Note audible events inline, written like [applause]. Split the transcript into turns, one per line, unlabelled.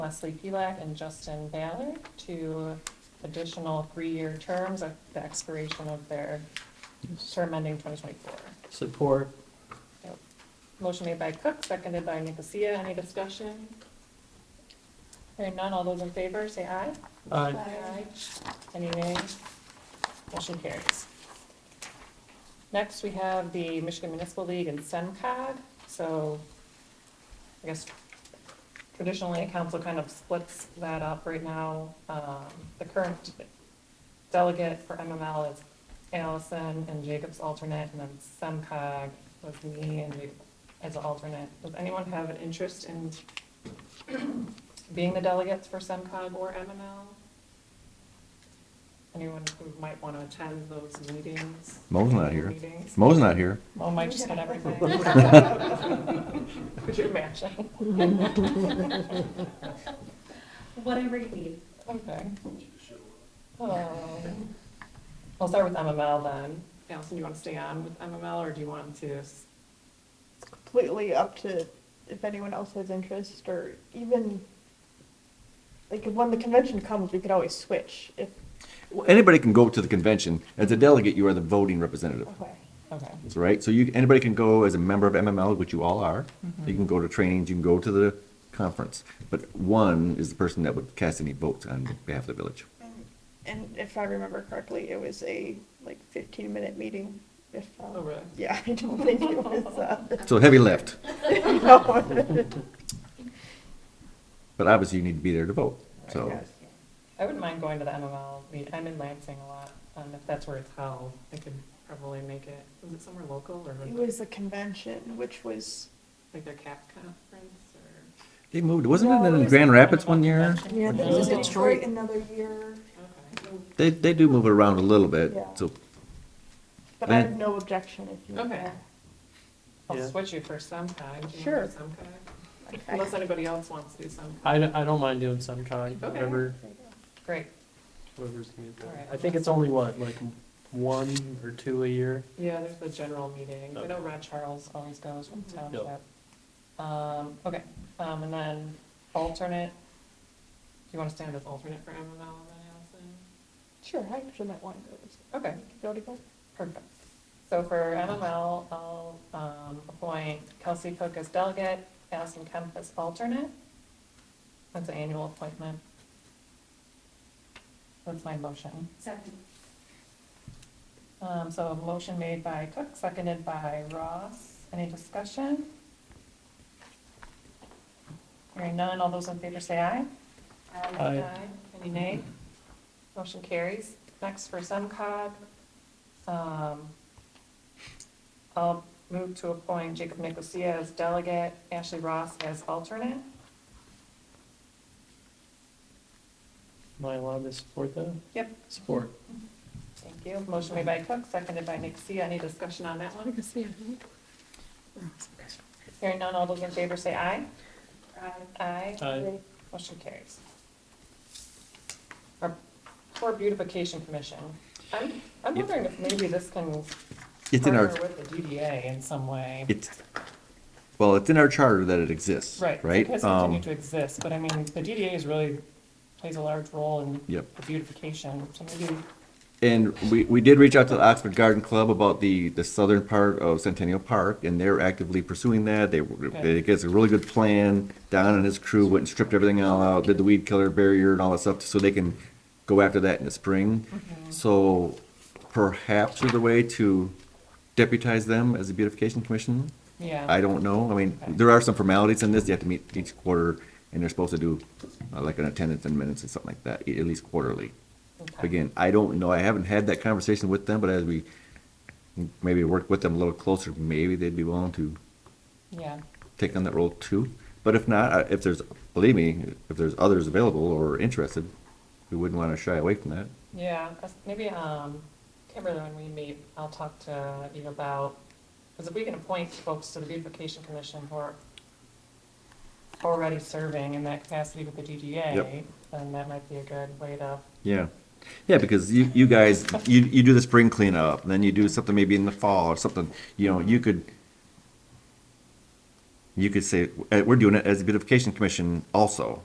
Leslie Pilak and Justin Ballard to additional three-year terms at the expiration of their term ending 2024.
Support.
Motion made by Cook, seconded by Nicosia. Any discussion? Hearing none, all those in favor, say aye.
Aye.
Aye. Any nay? Motion carries. Next, we have the Michigan Municipal League and SEMCOG. So I guess traditionally, council kind of splits that up right now. Um, The current delegate for MML is Allison and Jacob's alternate, and then SEMCOG was me and Jacob as an alternate. Does anyone have an interest in being the delegates for SEMCOG or MML? Anyone who might want to attend those meetings?
Mo's not here.
Meetings?
Mo's not here.
Oh, Mike just got everything. Could you imagine?
Whatever you need.
[laughs] Okay. Um, I'll start with MML then. Allison, do you want to stay on with MML or do you want to? s-
It's completely up to if anyone else has interest or even like if when the convention comes, we could always switch if
Well, Anybody can go to the convention. As a delegate, you are the voting representative.
okay.
Okay.
That's right. So you, anybody can go as a member of MML, which you all are. You can go to trainings, you can go to the conference. But one is the person that would cast any votes on behalf of the village.
And if I remember correctly, it was a like 15 minute meeting. If um,
Oh, really?
yeah, [laughs] I don't think it was. Uh,
So heavy lift.
[laughs] no.
But obviously, you need to be there to vote. So
Yes.
I wouldn't mind going to the MML meet. I'm in Lansing a lot. Um, if that's where it's held, I could probably make it. Was it somewhere local or
It was a convention, which was
like their CAP conference or?
they moved. Wasn't it
No, it
in
was
Grand
an
Rapids
MML
one year?
convention.
yeah, I think it was
Yeah.
Detroit another year.
Okay.
They, they do move it around a little bit.
Yeah.
So
But I
And-
have no objection if you.
Okay. I'll
Yeah.
switch you for SEMCOG. Do you
Sure.
want to do SEMCOG?
Okay.
Unless anybody else wants to do SEMCOG.
I don't, I don't mind doing some kind,
Okay.
whatever,
Great.
whatever's gonna be there.
Alright.
I think it's only what, like one or two a year?
Yeah, there's the general meeting. I know Rod Charles always goes from township. Um, okay, um, and then alternate, do you want to stand as alternate for MML then, Allison?
Sure, I actually might want to go. this-
Okay,
You already go?
perfect. So for MML, I'll, um, appoint Kelsey Cook as delegate, Allison Kemp as alternate. That's an annual appointment. That's my motion.
Second.
Um, so a motion made by Cook, seconded by Ross. Any discussion? Hearing none, all those in favor say aye.
Aye.
Any nay? Motion carries. Next for SEMCOG, um, I'll move to appoint Jacob Nicosia as delegate, Ashley Ross as alternate.
Am I allowed to support that?
Yep.
Support.
Thank you. Motion made by Cook, seconded by Nicosia. Any discussion on that one? Hearing none, all those in favor say aye. Aye.
Aye.
Motion carries. Our Poor Beautification Commission. I'm, I'm
Yep.
wondering if maybe this can
it's in our,
partner with the DDA in some way.
it's, well, it's in our charter that it exists.
Right, so
Right?
it has
Um,
continued to exist, but I mean, the DDA is really, plays a large role in
Yep.
the beautification, so maybe,
And we, we did reach out to the Oxford Garden Club about the, the southern part of Centennial Park, and they're actively pursuing that. They, they gets a really good plan. Don and his crew went and stripped everything all out, did the weed killer barrier and all that stuff, so they can go after that in the spring. So perhaps there's a way to deputize them as a beautification commission?
yeah.
I don't know. I mean, there are some formalities in this. You have to meet each quarter, and they're supposed to do uh, like an attendance and minutes and something like that, e, at least quarterly.
Okay.
Again, I don't know, I haven't had that conversation with them, but as we maybe work with them a little closer, maybe they'd be willing to
Yeah,
take on that role too. But if not, uh, if there's, believe me, if there's others available or interested, we wouldn't want to shy away from that.
yeah, that's- maybe, um, Kimberly, when we meet, I'll talk to you about, because if we can appoint folks to the beautification commission who are already serving in that capacity with the DDA,
Yep.
then that might be a good way to,
Yeah. Yeah, because you, you guys, you, you do the spring cleanup, and then you do something maybe in the fall or something, you know, you could, uh, you could say, eh, we're doing it as a beautification commission also,